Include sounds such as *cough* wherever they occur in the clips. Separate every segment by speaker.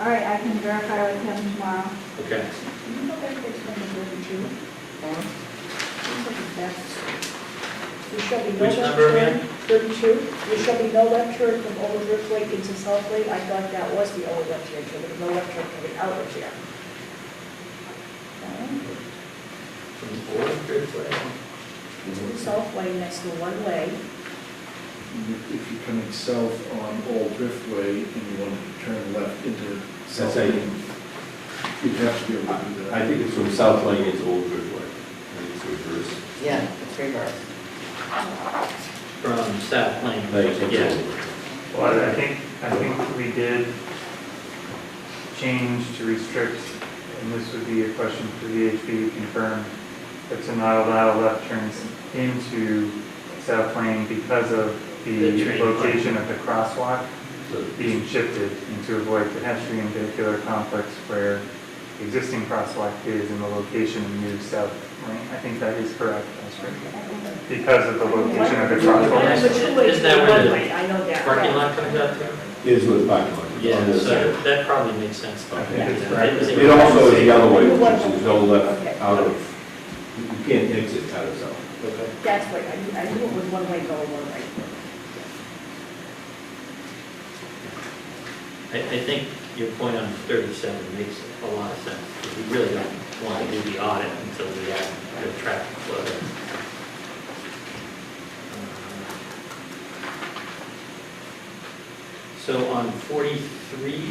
Speaker 1: All right, I can verify with him tomorrow.
Speaker 2: Okay.
Speaker 3: Can you go back to number thirty-two? Seems like it's backwards. There shall be no
Speaker 2: Which number
Speaker 3: lecturer, thirty-two, there shall be no lecturer from Old Rift Lake into South Lake, I thought that was the old lecturer, so there's no lecturer coming out of here. Um,
Speaker 2: From the board, good play.
Speaker 3: Into South Lake, next to one way,
Speaker 4: If you're coming south on Old Driftway and you want to turn left into South
Speaker 5: how you-
Speaker 4: Lane, you'd have to be able to do that.
Speaker 5: I think it's from South Lane into Old Bridgeway. I think it's reverse.
Speaker 6: Yeah, it's reverse.
Speaker 2: From South Lane.
Speaker 5: Like,
Speaker 2: Yeah.
Speaker 7: Well, I think, I think we did change to restrict, and this would be a question for VHB to confirm, but to not allow left turns into South Lane because of
Speaker 2: The
Speaker 7: the
Speaker 2: train
Speaker 7: location of the crosswalk
Speaker 5: it's-
Speaker 2: Mm.
Speaker 7: being shifted and to avoid pedestrian vehicular conflicts where the existing crosswalk is in the location of new South Lane. I think that is correct, that's right. Because of the location of the
Speaker 3: one
Speaker 7: crosswalk.
Speaker 3: of the two ways
Speaker 2: Is that
Speaker 3: to
Speaker 2: where the
Speaker 3: one way, I know that.
Speaker 2: Parking
Speaker 3: right.
Speaker 2: lot comes out there?
Speaker 5: Is with parking lot. on
Speaker 2: Yeah,
Speaker 5: this
Speaker 2: so
Speaker 5: side.
Speaker 2: that probably makes sense.
Speaker 7: I think it's right.
Speaker 2: It was a-
Speaker 5: It also is the other way, which is no left out of, you can't exit out of South.
Speaker 2: Okay.
Speaker 3: That's what, I knew, I knew it was one way, going one way.
Speaker 2: I, I think your point on thirty-seven makes a lot of sense, because we really don't want to do the audit until we have the traffic flow. Uh, So on forty-three,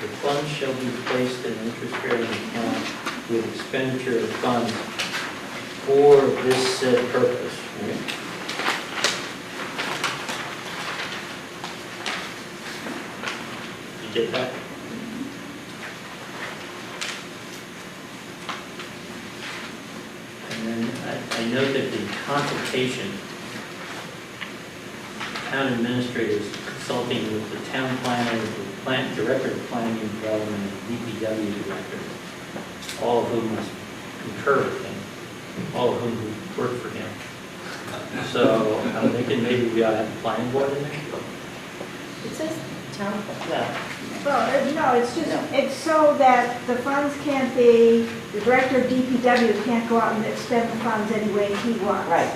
Speaker 2: the funds shall be placed in an interest-bearing account with expenditure of funds for this said purpose, right? You get that? And then I, I note that the consultation, town administrators consulting with the town planner, the plant, director of planning and development, and DPW director, all of whom must concur with him, all of whom work for him. So I'm thinking maybe we ought to have a planning board in there?
Speaker 6: It says town, well,
Speaker 1: Well, uh, no, it's just,
Speaker 6: No.
Speaker 1: it's so that the funds can't be, the director of DPW can't go out and expend the funds any way he wants.
Speaker 6: right,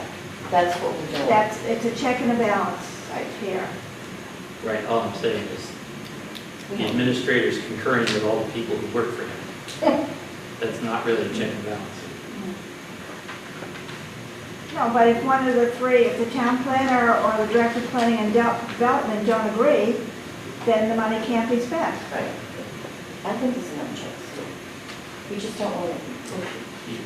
Speaker 6: that's what we're doing.
Speaker 1: That's, it's a check and a balance right here.
Speaker 2: Right, all I'm saying is
Speaker 6: We
Speaker 2: the
Speaker 6: don't-
Speaker 2: administrator's concurring with all the people who work for him. That's not really a check and balance.
Speaker 1: No, but if one of the three, if the town planner or the director of planning and Del- development don't agree, then the money can't be spent.
Speaker 6: Right. I think it's enough checks, too. We just don't want to,
Speaker 2: You-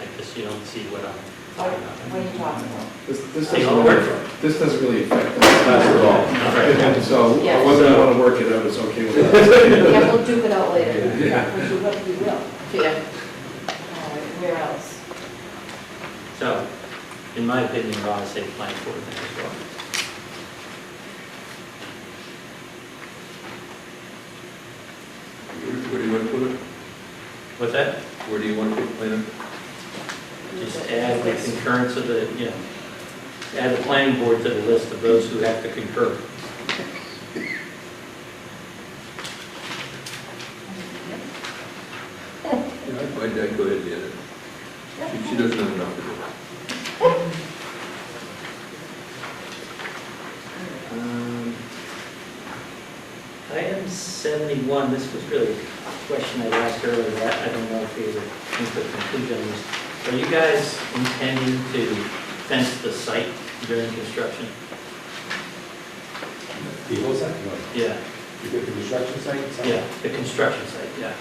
Speaker 2: I guess you don't see what I'm talking
Speaker 6: what are you
Speaker 2: about.
Speaker 6: talking about?
Speaker 4: This, this
Speaker 2: They all
Speaker 4: doesn't,
Speaker 2: work
Speaker 4: really-
Speaker 2: for him.
Speaker 4: this doesn't really affect
Speaker 5: *laughs*
Speaker 4: us
Speaker 5: Not at all.
Speaker 2: Right.
Speaker 4: And so,
Speaker 6: Yeah.
Speaker 4: whether you want to work it out, it's okay with us.
Speaker 6: Yeah, we'll duke it out later.
Speaker 5: Yeah.
Speaker 3: Which is what we will.
Speaker 6: Yeah. All right, where else?
Speaker 2: So, in my opinion, we ought to say plan for it as well.
Speaker 8: Where do you want to put it?
Speaker 2: With that,
Speaker 8: Where do you want to put it?
Speaker 2: just add the concurrence of the, you know, add the planning board to the list of those who have to concur.
Speaker 8: Yeah, I'd I'd- I'd go ahead and get it. She- She doesn't have enough to do.
Speaker 2: Um, Item 71, this was really a question I asked earlier, I I don't know if we ever came to a conclusion on this. Are you guys intending to fence the site during construction?
Speaker 5: The whole site, no.
Speaker 2: Yeah,
Speaker 5: You get the construction site? it's-
Speaker 2: yeah, the construction site, yeah.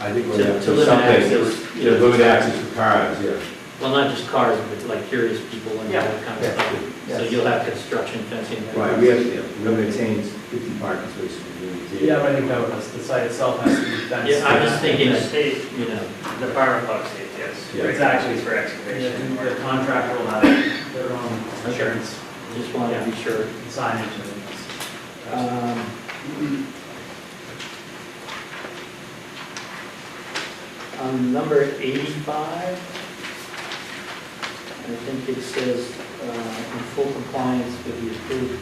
Speaker 5: I think
Speaker 2: To-
Speaker 5: we're going
Speaker 2: to
Speaker 5: to put
Speaker 2: limit
Speaker 5: something,
Speaker 2: access,
Speaker 5: yeah,
Speaker 2: yeah.
Speaker 5: limited access for cars, yeah.
Speaker 2: Well, not just cars, but like curious people and that kind of stuff. So you'll have construction fencing. there.
Speaker 5: Right, we have, yeah, we're going to maintain 50 parking spaces. we're gonna maintain.
Speaker 9: Yeah, but I think that was, the site itself has to be fenced.
Speaker 2: Yeah, I'm just thinking-
Speaker 9: The state,
Speaker 2: You know,
Speaker 9: the fire and flood state, yes.
Speaker 5: Yeah.
Speaker 9: It's actually for excavation. The contractor will have their own insurance,
Speaker 2: just want to be sure.
Speaker 9: signage and everything else.
Speaker 2: Um, On number 85, I think it says, uh, in full compliance with the approved